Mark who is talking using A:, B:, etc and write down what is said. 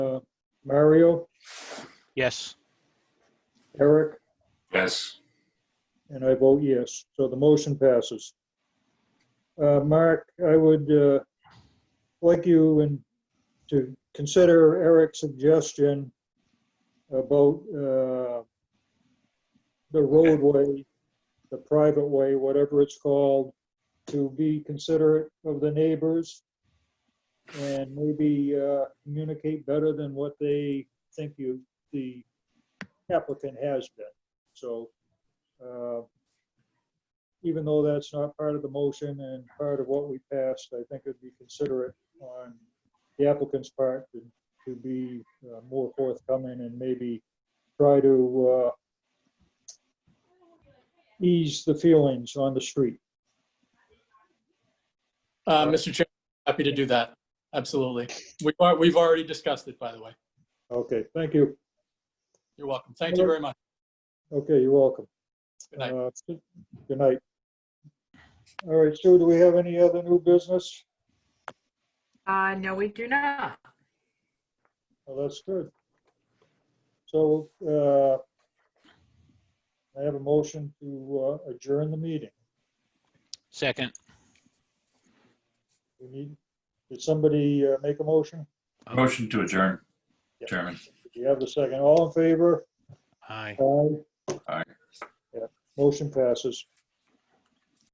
A: uh, Mario,
B: Yes.
A: Eric,
C: Yes.
A: and I vote yes. So the motion passes. Uh, Mark, I would uh, like you and to consider Eric's suggestion about uh, the roadway, the private way, whatever it's called, to be considerate of the neighbors and maybe uh, communicate better than what they think you, the applicant has been. So uh, even though that's not part of the motion and part of what we passed, I think it'd be considerate on the applicant's part to, to be uh, more forthcoming and maybe try to uh, ease the feelings on the street.
D: Uh, Mr. Chair, happy to do that. Absolutely. We've, al- we've already discussed it, by the way.
A: Okay, thank you.
D: You're welcome. Thank you very much.
A: Okay, you're welcome.
D: Good night.
A: Uh, Good night. All right, Sue, do we have any other new business?
E: Uh, no, we do not.
A: Well, that's good. So, uh, I have a motion to uh, adjourn the meeting.
B: Second.
A: We need, did somebody uh, make a motion?
C: Motion to adjourn, Chairman.
A: Do you have the second? All in favor?
B: Aye.
A: Aye.
C: Aye.
A: Yeah, Motion passes.